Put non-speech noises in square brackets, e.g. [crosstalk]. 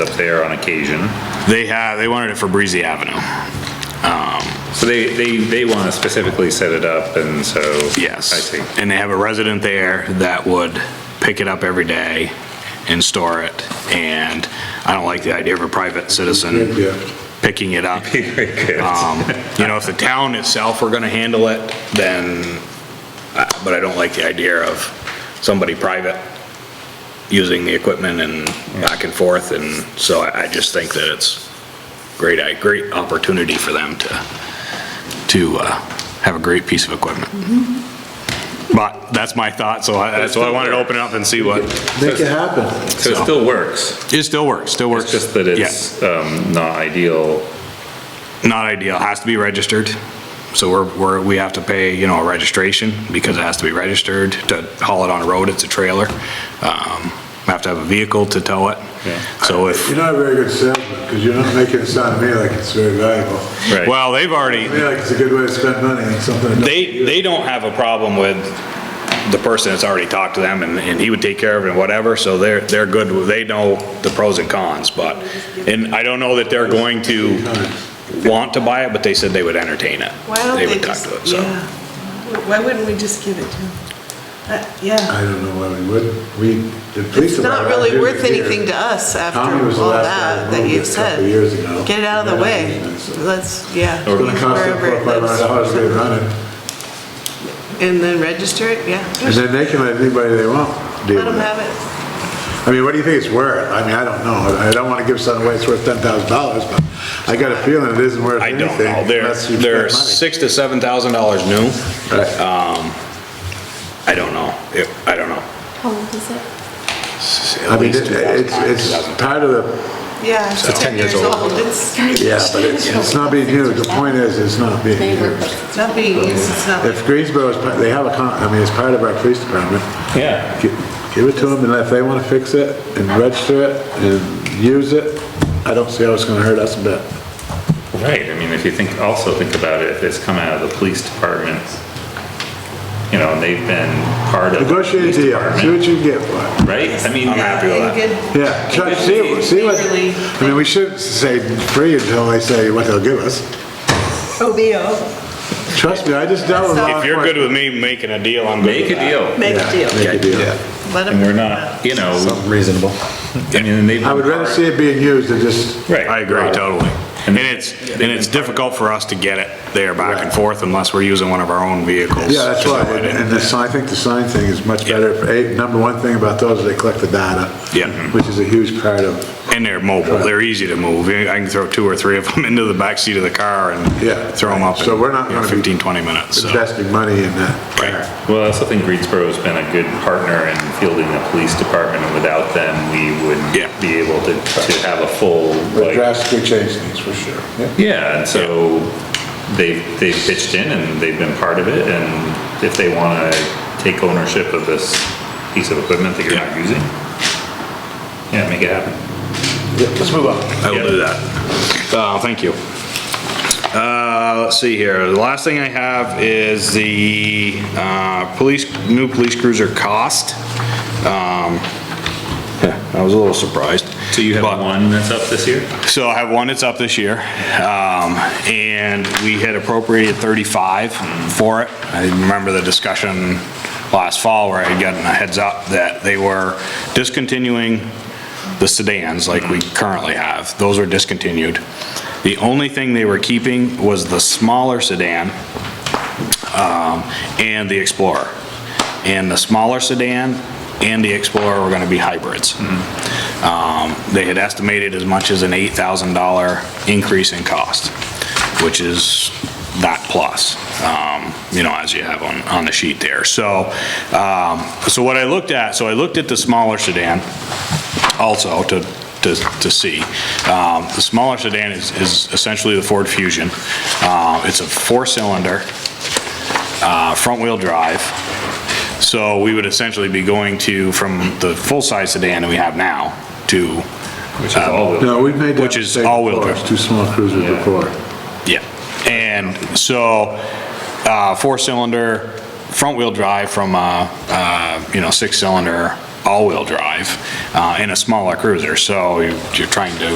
up there on occasion. They have, they wanted it for Breezy Avenue. So they, they, they want to specifically set it up and so. Yes. I see. And they have a resident there that would pick it up every day and store it. And I don't like the idea of a private citizen picking it [laughs] up. Um, You know, if the town itself were going to handle it, then, uh, but I don't like the idea of somebody private using the equipment and back and forth. And so I I just think that it's great, a great opportunity for them to, to uh, have a great piece of equipment. But that's my thought, so I- that's why I wanted to open it up and see what, Make it happen. So it still works, it still works, still works. it's just that it's, um, not ideal. Yeah, Not ideal, has to be registered. So we're, we're, we have to pay, you know, a registration because it has to be registered to haul it on a road, it's a trailer. Um, We Have to have a vehicle to tow it. So if, You're not a very good salesman, because you're not making it sound to me like it's very valuable. Right. well, they've already, To me, like it's a good way to spend money on something. that- They, they don't have a problem with the person that's already talked to them, and, and he would take care of it and whatever, so they're, they're good, with- they know the pros and cons, but, and I don't know that they're going to want to buy it, but they said they would entertain it. Why don't They they would talk just, to it, yeah. so. Why wouldn't we just give it to them? Uh, Yeah, I don't know why we would. We, the police. it's not department really did it worth here. anything to us after Tommy was the all last guy that, to that move you've this a couple said. years ago. Get it out of the Yeah, way, it's- let's, yeah. It's gonna cost them wherever four, or five hundred it lives. dollars to run it, And then register it, yeah, and then they can let anybody they want deal let them with it. have it. I mean, what do you think it's worth? I mean, I don't know. I don't want to give something away that's worth ten thousand dollars, but I got a feeling it isn't worth I anything. don't know, they're, unless you spend they're money. six to seven thousand dollars new. Um, I don't know, It- I don't know. How old is it? I mean, it- it's, it's part of the, Yeah, it's 10 years old. It's yeah, but it's, it's not being used. The point is, it's not being used. it's not being used, it's not, If Greensboro is, part- they have a con, I mean, it's part of our police department. Yeah. Gi- Give it to them and if they want to fix it and register it and use it, I don't see how it's going to hurt us a bit. Right, I mean, if you think, also think about it, if it's come out of the police department, you know, and they've been part of. the Negotiate police a deal, see department, what you can get for it. Right? I mean. yeah, and good. Yeah, try, see, see what, I mean, we shouldn't say free until they say what they'll give us. OBO, Trust me, I just dealt with law If you're good enforcement. with me making a deal, I'm good Make with a that. deal, make a Yeah, deal. Make a deal. Let and we're them, not, you know. Reasonable. I mean, and they've. I would rather see it being used than just, Right. I agree, totally. And it's, and it's difficult for us to get it there back and forth unless we're using one of our own vehicles. yeah, that's why, and and the sign, I think the sign thing is much better. Eh, Number one thing about those is they collect the data. Yeah. Which is a huge part of And they're mobile, they're easy to move. I can throw two or three of them [laughs] into the backseat of the car Yeah. and throw them up in So we're not you know, gonna be 15, 20 minutes, so. investing money in that. Right. Well, I also think Greensboro's been a good partner in fielding the police department, and without them, we Yeah. wouldn't be able to, to have a full, like, But drastically change things, for sure. yeah, and so they've, they've pitched in and they've been part of it, and if they wanna take ownership of this piece of equipment that you're not using, yeah, make it happen. Let's move on. I will do that. Uh, thank you. Uh, let's see here, the last thing I have is the, uh, police, new police cruiser cost. Um, yeah, I was a little surprised. So you But- have one that's up this year? So I have one that's up this year, um, and we had appropriated 35 for it. I remember the discussion last fall where I had gotten a heads up that they were discontinuing the sedans like we currently have. Those were discontinued. The only thing they were keeping was the smaller sedan, um, and the Explorer. And the smaller sedan and the Explorer were gonna be hybrids. Um, They had estimated as much as an $8,000 increase in cost, which is that plus, um, you know, as you have on, on the sheet there. So, um, so what I looked at, so I looked at the smaller sedan also to, to, to see. Um, The smaller sedan is, is essentially the Ford Fusion. Uh, It's a four-cylinder uh, front-wheel drive. So we would essentially be going to, from the full-size sedan that we have now, to, Which is all the, No, we've made that Which is mistake all-wheel before. drive. It's Two small cruisers Yeah. before. yeah. And so, uh, uh, four-cylinder, front-wheel drive from, a, uh, you know, six-cylinder, all-wheel drive. drive uh, in a smaller cruiser, so you- you're trying to